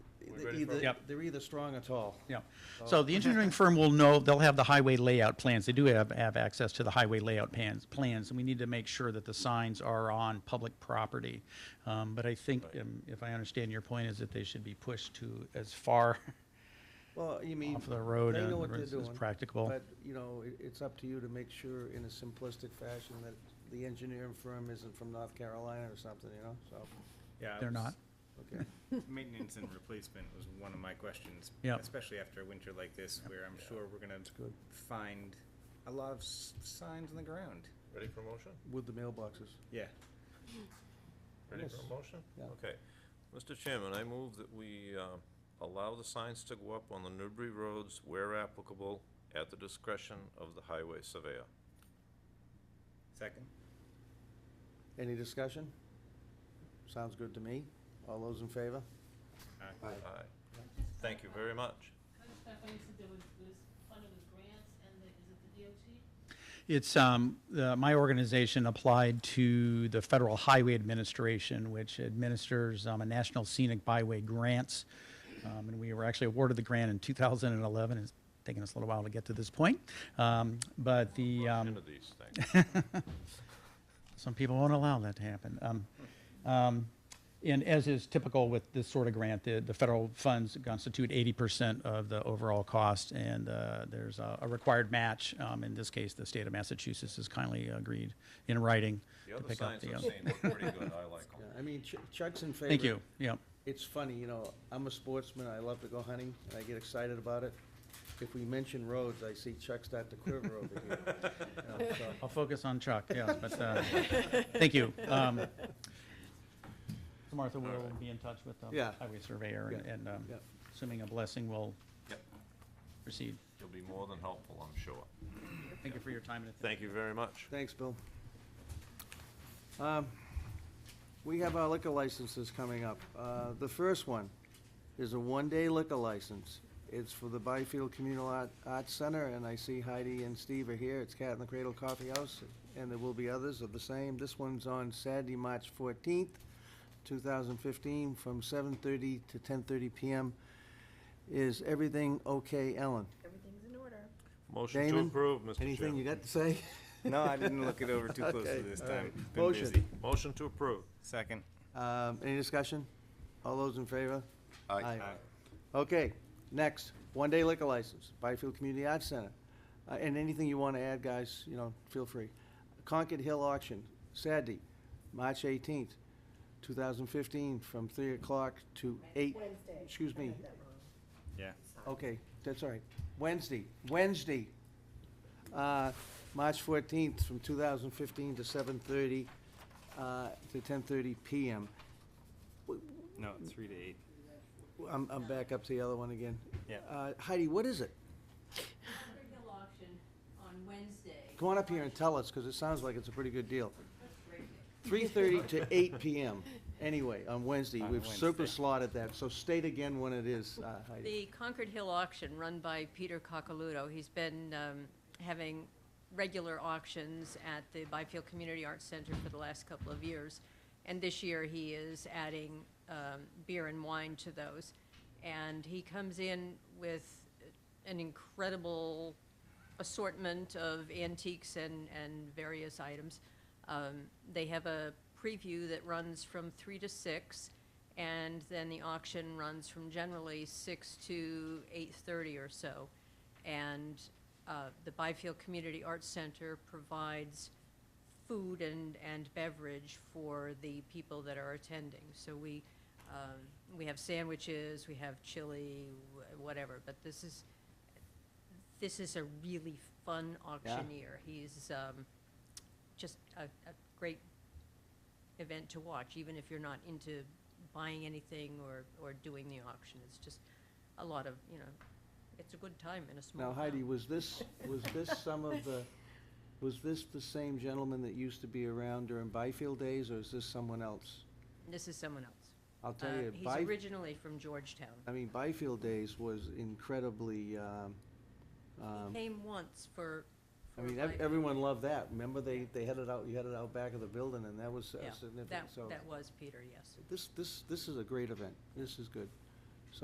ready for it. either, Yep. they're either strong or tall. Yeah, so the engineering firm will know, they'll have the highway layout plans, they do have, have access to the highway layout plans, plans, and we need to make sure that the signs are on public property. Um, but I think, um, if I understand your point, is that they should be pushed to as far, Well, you mean. Off the road They and know what they're it's- it's doing. practicable. But, you know, it, it's up to you to make sure in a simplistic fashion that the engineering firm isn't from North Carolina or something, you know, so, Yeah, they're it was- not. okay. Maintenance and replacement was one of my questions. Yeah. Especially after a winter like this, where I'm sure we're gonna find a lot of s- signs on the ground. Ready for motion? With the mailboxes. Yeah. Ready Yes. for a motion? Yeah. Okay. Mr. Chairman, I move that we uh, allow the signs to go up on the Newbury roads where applicable at the discretion of the highway surveyor. Second? Any discussion? Sounds good to me. All those in favor? Aye. Aye. Aye. Thank you very much. Can I just clarify, you said there was, there was funding with grants and the, is it the DOT? It's, um, the, my organization applied to the Federal Highway Administration, which administers, um, a National Scenic Byway Grants. Um, and we were actually awarded the grant in two thousand and eleven, it's taken us a little while to get to this point. Um, but the, um. Into these things. Some people won't allow that to happen. Um, um, And as is typical with this sort of grant, the, the federal funds constitute eighty percent of the overall cost, and uh, there's a a required match. Um, In this case, the state of Massachusetts has kindly agreed in writing The to other pick up signs the. I've uh, seen look pretty good. I like Yeah, them. I mean, Ch- Chuck's in favor. Thank you, yeah. It's funny, you know, I'm a sportsman, I love to go hunting, and I get excited about it. If we mention roads, I see Chuck start to quiver over here. You know, so- I'll focus on Chuck, yes, but, uh, thank you. Um, so Martha will be in touch with the Yeah. highway surveyor, and- Yeah. and um, Yeah. assuming a blessing, will Yep. proceed. You'll be more than helpful, I'm sure. Thank you for your time and attention. Thank you very much. Thanks, Bill. Um, We have our liquor licenses coming up. Uh, The first one is a one-day liquor license. It's for the Byfield Communal Art Arts Center, and I see Heidi and Steve are here. It's Cat in the Cradle Coffee House, and there will be others of the same. This one's on Saturday, March 14th, 2015, from 7:30 to 10:30 PM. Is everything okay, Ellen? Everything's in order. Motion to Damon, approve, Mr. Chairman. Anything you got to say? No, I didn't look it over too closely Okay, this all right. time. Been Motion. busy. Motion to approve. Second? Um, Any discussion? All those in favor? Aye. Aye. Okay, next, one-day liquor license, Byfield Community Arts Center. Uh, And anything you want to add, guys, you know, feel free. Concord Hill Auction, Saturday, March 18th, 2015, from 3 o'clock to 8. Wednesday. Excuse I me, read that wrong. Yeah. okay, that's all right. Wednesday, Wednesday, uh, March 14th, from 2015 to 7:30 uh, to 10:30 PM. No, three to eight. I'm I'm back up to the other one again. Yeah. Uh, Heidi, what is it? Concord Hill auction on Wednesday. Come on up here and tell us, because it sounds like it's a pretty good deal. That's great. 3:30 to 8 PM, anyway, on Wednesday. On We've Wednesday. super slotted that, so state again when it is, uh, Heidi. The Concord Hill auction, run by Peter Coccoluto, he's been um, having regular auctions at the Byfield Community Arts Center for the last couple of years, and this year he is adding um, beer and wine to those. And he comes in with an incredible assortment of antiques and, and various items. Um, They have a preview that runs from three to six, and then the auction runs from generally six to eight-thirty or so. And uh, the Byfield Community Arts Center provides food and, and beverage for the people that are attending. So we, um, we have sandwiches, we have chili, wh- whatever, but this is, this is a really fun auctioneer. He's um, just a, a great event to watch, even if you're not into buying anything or, or doing the auction. It's just a lot of, you know, it's a good time in a small Now town. Heidi, was this, was this some of the, was this the same gentleman that used to be around during Byfield days, or is this someone else? This is someone else. I'll tell Uh, you, He's Byfield. originally from Georgetown. I mean, Byfield Days was incredibly, um, um, He came once for, I for mean, like- ev- everyone loved that. Remember, they, they had it out, you had it out back of the building, and that was uh, yeah, significant, that, so. that was Peter, yes. This, this, this is a great event. This is good.